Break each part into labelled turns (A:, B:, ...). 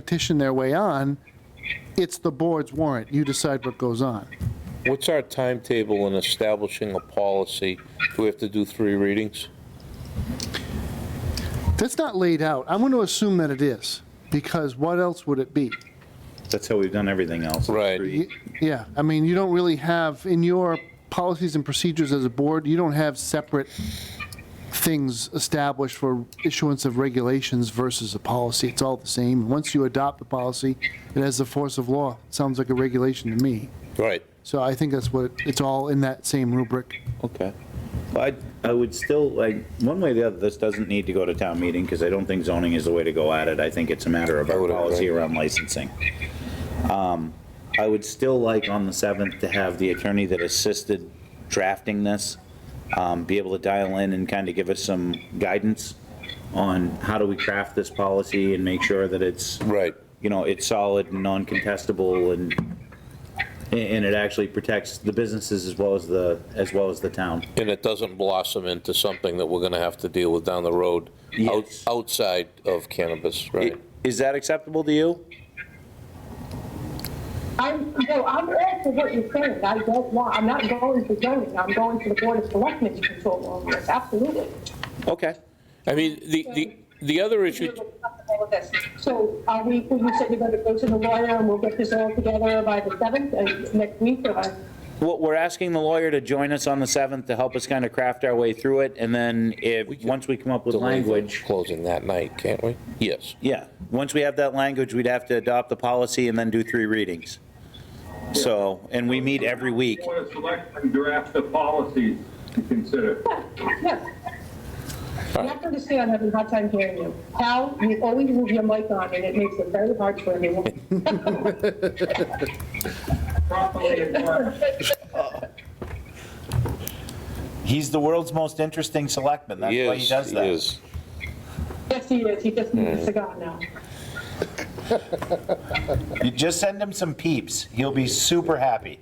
A: petition their way on, it's the board's warrant. You decide what goes on.
B: What's our timetable in establishing a policy? Do we have to do three readings?
A: That's not laid out. I'm going to assume that it is, because what else would it be?
C: That's how we've done everything else.
B: Right.
C: Three.
A: Yeah, I mean, you don't really have, in your policies and procedures as a board, you don't have separate things established for issuance of regulations versus a policy. It's all the same. Once you adopt the policy, it has the force of law. Sounds like a regulation to me.
B: Right,
A: So I think that's what, it's all in that same rubric.
C: Okay. I, I would still, like, one way or the other, this doesn't need to go to town meeting, because I don't think zoning is the way to go at it. I think it's a matter of
B: I
C: our
B: would agree.
C: policy around licensing. Um, I would still like on the 7th to have the attorney that assisted drafting this um, be able to dial in and kind of give us some guidance on how do we craft this policy and make sure that it's
B: right.
C: you know, it's solid and non-contestable and, and it actually protects the businesses as well as the, as well as the town.
B: And it doesn't blossom into something that we're going to have to deal with down the road out-
C: Yes.
B: outside of cannabis, right?
C: Is that acceptable to you?
D: I'm, no, I'm all for what you're saying, I don't want, I'm not going to zoning, I'm going to the board of selectmen to control all of this, absolutely.
C: Okay.
B: I mean, the, the, the other issue,
D: All of this. So are we, you said you're gonna go to the lawyer and we'll get this all together by the seventh, uh, next week, or?
C: Well, we're asking the lawyer to join us on the 7th to help us kind of craft our way through it. And then if, once we come up with language,
B: closing that night, can't we? Yes.
C: yeah, once we have that language, we'd have to adopt the policy and then do three readings. So, and we meet every week.
E: Board of Selectmen draft the policies to consider.
D: Yes. You have to understand, I'm having a hard time hearing you. Hal, you always move your mic on, and it makes it very hard for everyone.
E: Properly endorsed.
C: He's the world's most interesting selectman. That's why he
B: Yes,
C: does that.
B: yes.
D: Yes, he is, he just needs a cigar now.
C: You just send him some peeps. He'll be super happy.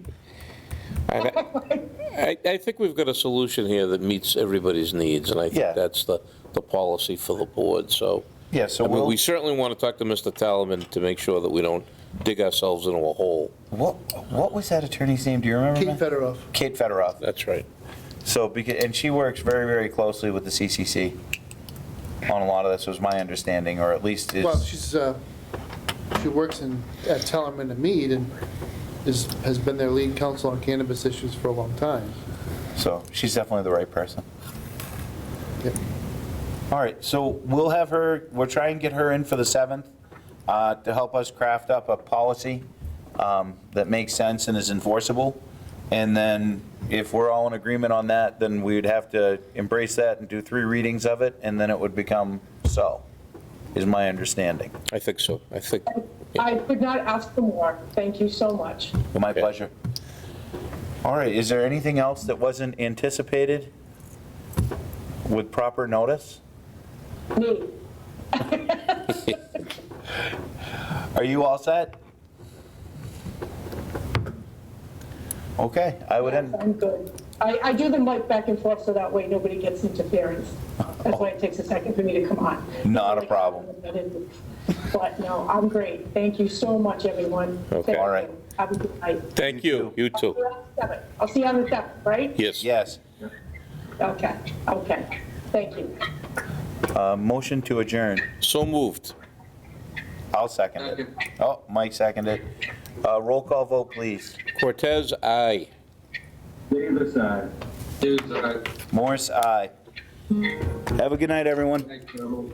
B: And I, I I think we've got a solution here that meets everybody's needs, and I
C: Yeah.
B: think that's the, the policy for the board, so.
C: Yeah, so
B: I mean,
C: we'll-
B: We certainly want to talk to Mr. Talaman to make sure that we don't dig ourselves into a hole.
C: What what was that attorney's name? Do you remember? ma'am?
A: Federoff.
C: Kate Federoff.
B: That's right.
C: So beca- and she works very very closely with the CCC on a lot of this was my understanding, or at least is
A: Well, she's, uh, she works in, at Tellerman and Mead and is, has been their lead counsel on cannabis issues for a long time.
C: so she's definitely the right person.
A: Yep.
C: All right, so we'll have her. We'll try and get her in for the seventh uh, to help us craft up a policy um, that makes sense and is enforceable. And then if we're all in agreement on that, then we'd have to embrace that and do three readings of it, and then it would become so. Is my understanding.
B: I think so. I think,
D: I could not ask for more, thank you so much.
C: Well, My
B: Okay.
C: pleasure. All right, is there anything else that wasn't anticipated with proper notice?
D: Me,
C: Are you all set? Okay, I would end,
D: I'm good. I, I do the mic back and forth so that way nobody gets interference. That's why it takes a second for me to come on.
C: Not a problem.
D: But no, I'm great. Thank you so much, everyone.
B: Okay.
D: Thank
C: All right.
D: you. Have a good night.
B: thank
C: You
B: you, you too.
D: We're on the seventh. I'll see you on the seventh, right?
B: Yes.
C: yes,
D: Okay, okay. Thank you.
C: a motion to adjourn.
B: So moved.
C: I'll second it. Oh, Mike seconded. Uh, Roll call vote, please.
B: Cortez, aye.
E: Davis, aye.
F: Dudes, I
C: Morse, aye. Have a good night, everyone.
F: thank you.